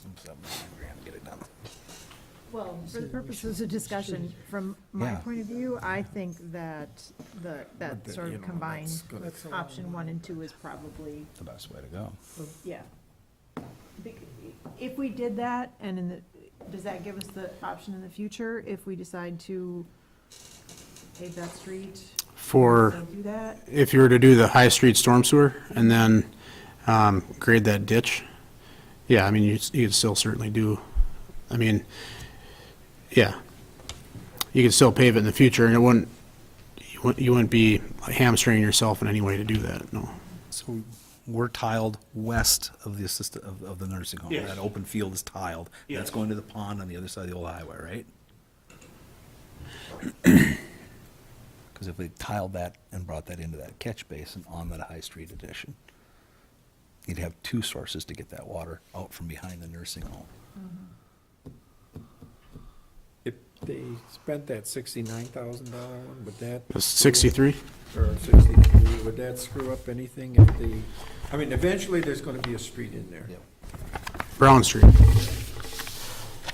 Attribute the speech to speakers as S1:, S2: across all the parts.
S1: something, we're gonna get it done.
S2: Well, for the purposes of discussion, from my
S1: Yeah.
S2: point of view, I think that the, that
S1: But,
S2: sort
S1: you
S2: of
S1: know,
S2: combined
S1: that's gonna-
S2: with option one and two is probably,
S1: The best way to go.
S2: yeah. Bec- If we did that, and in the, does that give us the option in the future if we decide to pave that street?
S3: for,
S2: So Do that?
S3: if you were to do the High Street storm sewer and then um, grade that ditch, yeah, I mean, you'd you'd still certainly do, I mean, yeah. You could still pave it in the future, and it wouldn't, you wouldn't- you wouldn't be hamstringing yourself in any way to do that, no.
S1: So we're tiled west of the assistant, of, of the nursing home.
S3: Yes.
S1: That open field is tiled. That's
S3: Yes.
S1: going to the pond on the other side of the old highway, right? Because if we tiled that and brought that into that catch basin on that High Street addition, you'd have two sources to get that water out from behind the nursing home.
S4: If they spent that sixty-nine thousand dollar one, would that?
S3: It's 63?
S4: Or sixty-three, would that screw up anything if the, I mean, eventually there's gonna be a street in there.
S3: Brown Street.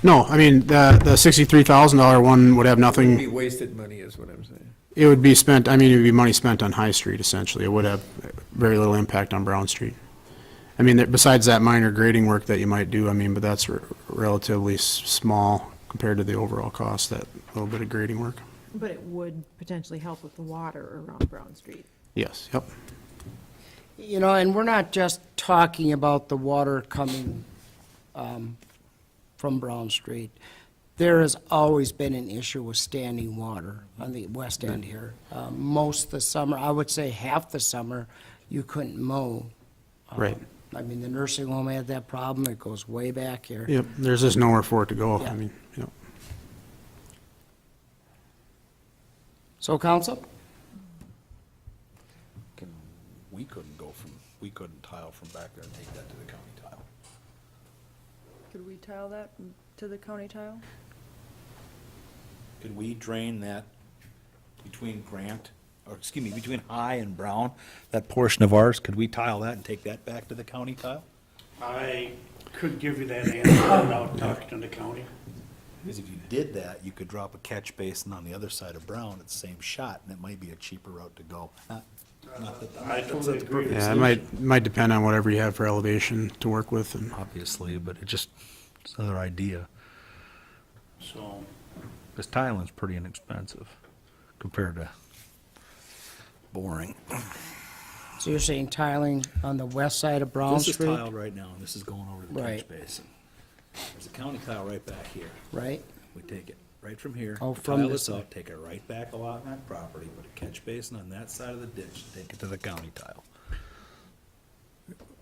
S3: No, I mean, the the $63,000 one would have nothing.
S4: It'd be wasted money is what I'm saying.
S3: It would be spent, I mean, it would be money spent on High Street essentially. It would have very little impact on Brown Street. I mean, that- besides that minor grading work that you might do, I mean, but that's re- relatively s- small compared to the overall cost, that little bit of grading work.
S2: But it would potentially help with the water around Brown Street.
S3: Yes, yep.
S5: You know, and we're not just talking about the water coming um, from Brown Street. There has always been an issue with standing water on the west end here. Uh, Most of the summer, I would say half the summer, you couldn't mow.
S3: Right.
S5: Um, I mean, the nursing home had that problem. It goes way back here.
S3: Yep, there's just nowhere for it to go. I
S5: Yeah.
S3: mean, yep.
S5: So, council?
S1: Can- We couldn't go from, we couldn't tile from back there and take that to the county tile.
S6: Could we tile that to the county tile?
S1: Could we drain that between Grant, or excuse me, between High and Brown, that portion of ours, could we tile that and take that back to the county tile?
S7: I could give you that answer without talking to the county.
S1: Because if you did that, you could drop a catch basin on the other side of Brown at the same shot, and it might be a cheaper route to go. Not- not that-
S7: I
S1: that's-
S7: totally
S1: that's
S7: agree with
S1: perfect.
S3: Yeah, it might, might depend on whatever you have for elevation to work with and
S1: Obviously, but it just, it's another idea.
S7: So,
S1: Because tiling's pretty inexpensive compared to boring.
S5: So you're saying tiling on the west side of Brown
S1: This is
S5: Street?
S1: tiled right now, and this is going over to the catch
S5: Right.
S1: basin. There's a county tile right back here.
S5: Right?
S1: We take it right from here.
S5: Oh,
S1: we
S5: from
S1: tile
S5: this
S1: this out, take it right back along that property, put a catch basin on that side of the ditch, take it to the county tile.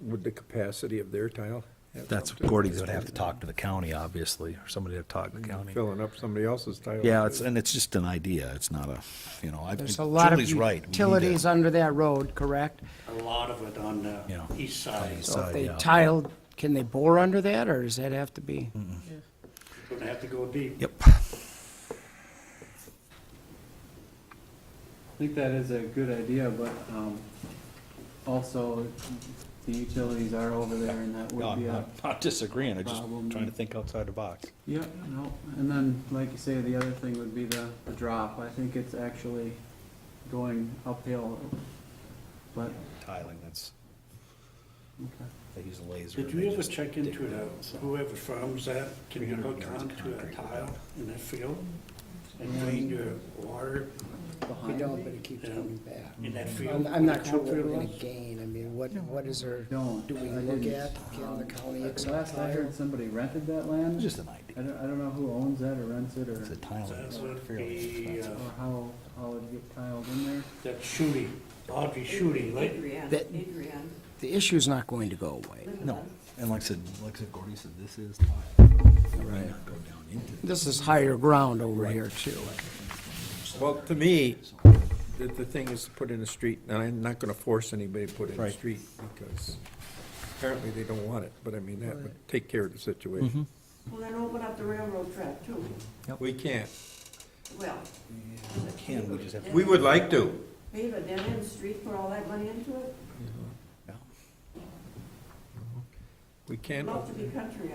S4: Would the capacity of their tile? have
S1: That's,
S4: something?
S1: Gordy's gonna have to talk to the county, obviously, or somebody to talk to the county.
S4: Filling up somebody else's tile.
S1: Yeah, it's, and it's just an idea, it's not a, you know, I,
S5: There's a lot of
S1: Julie's right. we need to-
S5: utilities under that road, correct?
S7: a lot of it on the
S1: Yeah.
S7: east side,
S1: East
S7: it's
S5: So
S1: side,
S5: if they
S1: yeah.
S5: tiled, can they bore under that, or does that have to be?
S7: gonna have to go deep.
S1: Yep.
S8: I think that is a good idea, but um, also the utilities are over there and that
S1: No,
S8: would
S1: I'm
S8: be a,
S1: not- Not disagreeing, I'm just
S8: problem.
S1: trying to think outside the box.
S8: yeah, no. And then, like you say, the other thing would be the, the drop. I think it's actually going uphill, but,
S1: Tiling, that's,
S8: okay.
S1: they use a laser.
S7: Did you ever check into the, whoever farms that, can you hook on to a tile in that field? And drain your water
S5: We don't, but it keeps coming back.
S7: in that
S5: I'm,
S7: field?
S5: I'm not sure what we're gonna gain, I mean, what, what is there, do
S8: Don't.
S5: we
S8: I
S5: look
S8: didn't.
S5: at, can the county
S8: The
S5: accept
S8: Last I
S5: higher?
S8: heard, somebody rented that land.
S1: Just an
S8: I
S1: idea.
S8: don't, I don't know who owns that or rents it or,
S1: It's a tiling.
S7: That
S1: it's
S7: would
S1: fairly
S7: be,
S1: expensive.
S7: uh,
S8: or how, how it get tiled in there.
S7: that Shooty, Audrey Shooty, like,
S5: That- The issue's not going to go away.
S1: No, and like I said, like I said, Gordy said, this is tile. Right. Go down into
S5: This is higher ground over here too.
S4: Well, to me, the, the thing is to put in a street, and I'm not gonna force anybody to put in a
S1: Right.
S4: street, because apparently they don't want it, but I mean, that would take care of the situation.
S1: Mm-hmm.
S9: Well, then open up the railroad track too.
S4: We can't.
S9: Well,
S1: it. Can, we just have to-
S4: We would like to.
S9: pave a dead end street, put all that money into it.
S1: Yeah.
S4: We can't.
S9: Love to be country out